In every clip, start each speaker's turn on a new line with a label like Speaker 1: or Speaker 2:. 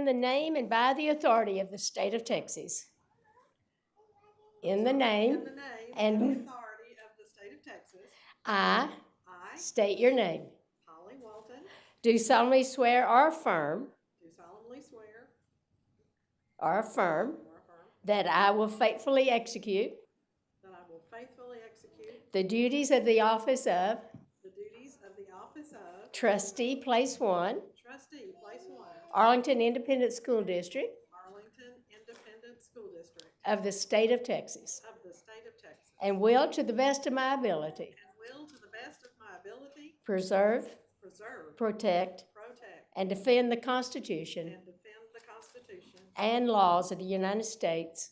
Speaker 1: In the name and by the authority of the state of Texas. In the name,
Speaker 2: In the name
Speaker 1: and-
Speaker 2: and authority of the state of Texas,
Speaker 1: I
Speaker 2: I,
Speaker 1: state your name.
Speaker 2: Polly Walton,
Speaker 1: Do solemnly swear or affirm,
Speaker 2: do solemnly swear
Speaker 1: or affirm,
Speaker 2: or affirm
Speaker 1: that I will faithfully execute
Speaker 2: that I will faithfully execute
Speaker 1: the duties of the office of
Speaker 2: the duties of the office of
Speaker 1: trustee, place one,
Speaker 2: trustee, place one,
Speaker 1: Arlington Independent School District
Speaker 2: Arlington Independent School District
Speaker 1: of the state of Texas,
Speaker 2: of the state of Texas,
Speaker 1: and will, to the best of my ability,
Speaker 2: and will, to the best of my ability,
Speaker 1: preserve,
Speaker 2: preserve,
Speaker 1: protect,
Speaker 2: protect,
Speaker 1: and defend the Constitution
Speaker 2: and defend the Constitution
Speaker 1: and laws of the United States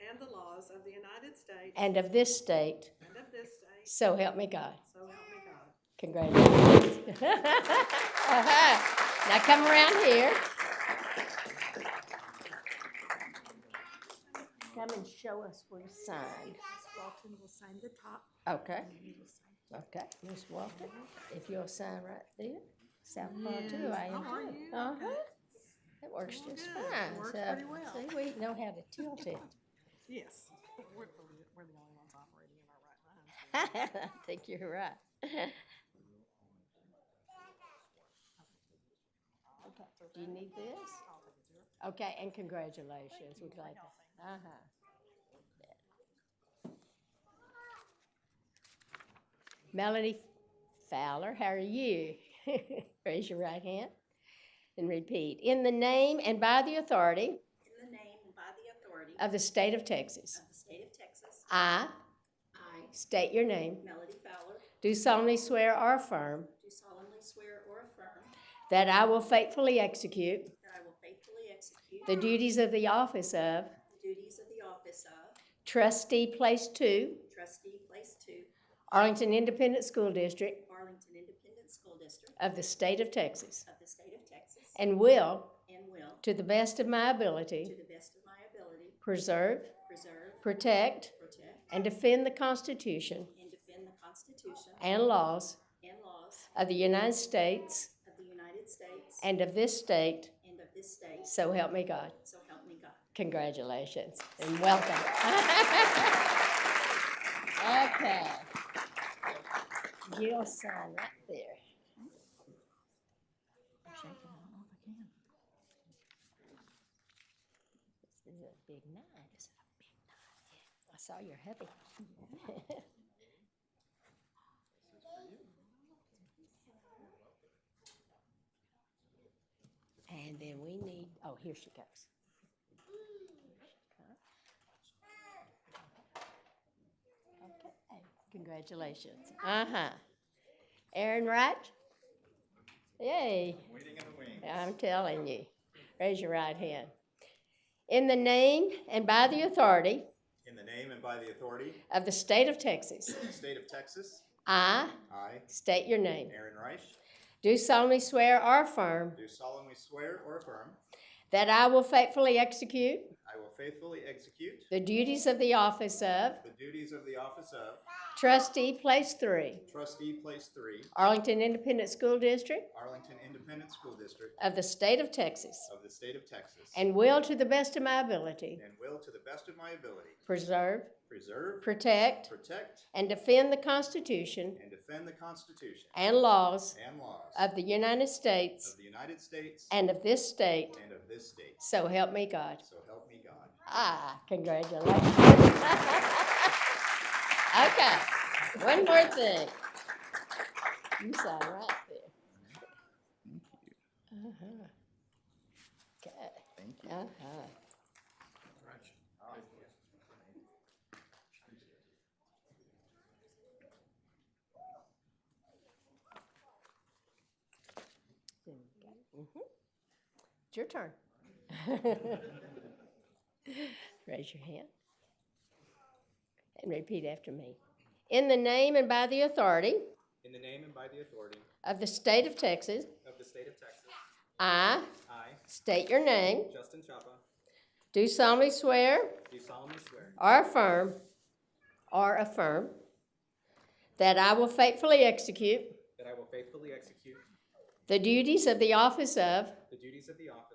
Speaker 2: and the laws of the United States
Speaker 1: and of this state.
Speaker 2: and of this state,
Speaker 1: So help me God.
Speaker 2: so help me God.
Speaker 1: Congratulations. Uh-huh. Now come around here. Come and show us where to sign.
Speaker 3: Walton will sign the top.
Speaker 1: Okay,
Speaker 3: You will sign.
Speaker 1: okay, Miss Walton, if you'll sign right there. South Paw too,
Speaker 2: Yes.
Speaker 1: I am
Speaker 2: Oh, are
Speaker 1: too.
Speaker 2: you?
Speaker 1: Uh-huh.
Speaker 2: Okay.
Speaker 1: It works
Speaker 2: Well,
Speaker 1: just
Speaker 2: good.
Speaker 1: fine.
Speaker 2: It works
Speaker 1: So,
Speaker 2: pretty well.
Speaker 1: See, we know how to tilt it.
Speaker 2: Yes, we're, we're the only ones operating in our right minds.
Speaker 1: I think you're right. Do you need this? Okay, and congratulations, we're glad to, uh-huh. Melanie Fowler, how are you? Raise your right hand and repeat. In the name and by the authority
Speaker 3: In the name and by the authority
Speaker 1: of the state of Texas,
Speaker 3: of the state of Texas,
Speaker 1: I
Speaker 3: I,
Speaker 1: state your name,
Speaker 3: Melody Fowler,
Speaker 1: do solemnly swear or affirm
Speaker 3: do solemnly swear or affirm
Speaker 1: that I will faithfully execute
Speaker 3: that I will faithfully execute
Speaker 1: the duties of the office of
Speaker 3: the duties of the office of
Speaker 1: trustee place two,
Speaker 3: trustee place two,
Speaker 1: Arlington Independent School District,
Speaker 3: Arlington Independent School District
Speaker 1: of the state of Texas
Speaker 3: of the state of Texas,
Speaker 1: and will,
Speaker 3: and will,
Speaker 1: to the best of my
Speaker 3: to
Speaker 1: ability,
Speaker 3: the best of my ability,
Speaker 1: preserve,
Speaker 3: preserve,
Speaker 1: protect,
Speaker 3: protect,
Speaker 1: and defend the Constitution
Speaker 3: and defend the Constitution
Speaker 1: and laws
Speaker 3: and laws
Speaker 1: of the United States
Speaker 3: of the United States
Speaker 1: and of this state,
Speaker 3: and of this state,
Speaker 1: so help me God.
Speaker 3: so help me God.
Speaker 1: Congratulations and welcome. okay. You'll sign right there. This is a big night. This is a big night. I saw you're heavy. And then we need, oh, here she goes. Okay, Congratulations. Uh-huh. Aaron Wright? Yay.
Speaker 4: Waiting in the wings.
Speaker 1: I'm telling you. Raise your right hand. In the name and by the authority
Speaker 4: In the name and by the authority
Speaker 1: of the state of Texas,
Speaker 4: of the state of Texas,
Speaker 1: I
Speaker 4: I,
Speaker 1: state your name.
Speaker 4: Aaron Reich,
Speaker 1: Do solemnly swear or affirm
Speaker 4: do solemnly swear or affirm
Speaker 1: that I will faithfully execute
Speaker 4: I will faithfully execute
Speaker 1: the duties of the office of
Speaker 4: the duties of the office of
Speaker 1: trustee, place three,
Speaker 4: trustee, place three,
Speaker 1: Arlington Independent School District
Speaker 4: Arlington Independent School District
Speaker 1: of the state of Texas,
Speaker 4: of the state of Texas,
Speaker 1: and will, to the best of my ability,
Speaker 4: and will, to the best of my ability,
Speaker 1: preserve,
Speaker 4: preserve,
Speaker 1: protect,
Speaker 4: protect,
Speaker 1: and defend the Constitution
Speaker 4: and defend the Constitution
Speaker 1: and laws
Speaker 4: and laws
Speaker 1: of the United
Speaker 4: of
Speaker 1: States
Speaker 4: the United States
Speaker 1: and of this state,
Speaker 4: and of this state.
Speaker 1: so help me God.
Speaker 4: So help me God.
Speaker 1: Ah, congratulations. okay, one more thing. You sound right there. Uh-huh. Thank you. Uh-huh. Okay. Thank you. Uh-huh. There we go. Mhm. It's your turn. Raise your hand and repeat after me. In the name and by the authority
Speaker 4: In the name and by the authority
Speaker 1: of the state of Texas,
Speaker 4: of the state of Texas,
Speaker 1: I
Speaker 4: I,
Speaker 1: state your name,
Speaker 4: Justin Chapa,
Speaker 1: do solemnly swear
Speaker 4: do solemnly swear
Speaker 1: or affirm or affirm that I will faithfully execute
Speaker 4: that I will faithfully execute
Speaker 1: the duties of the office of
Speaker 4: the duties of the office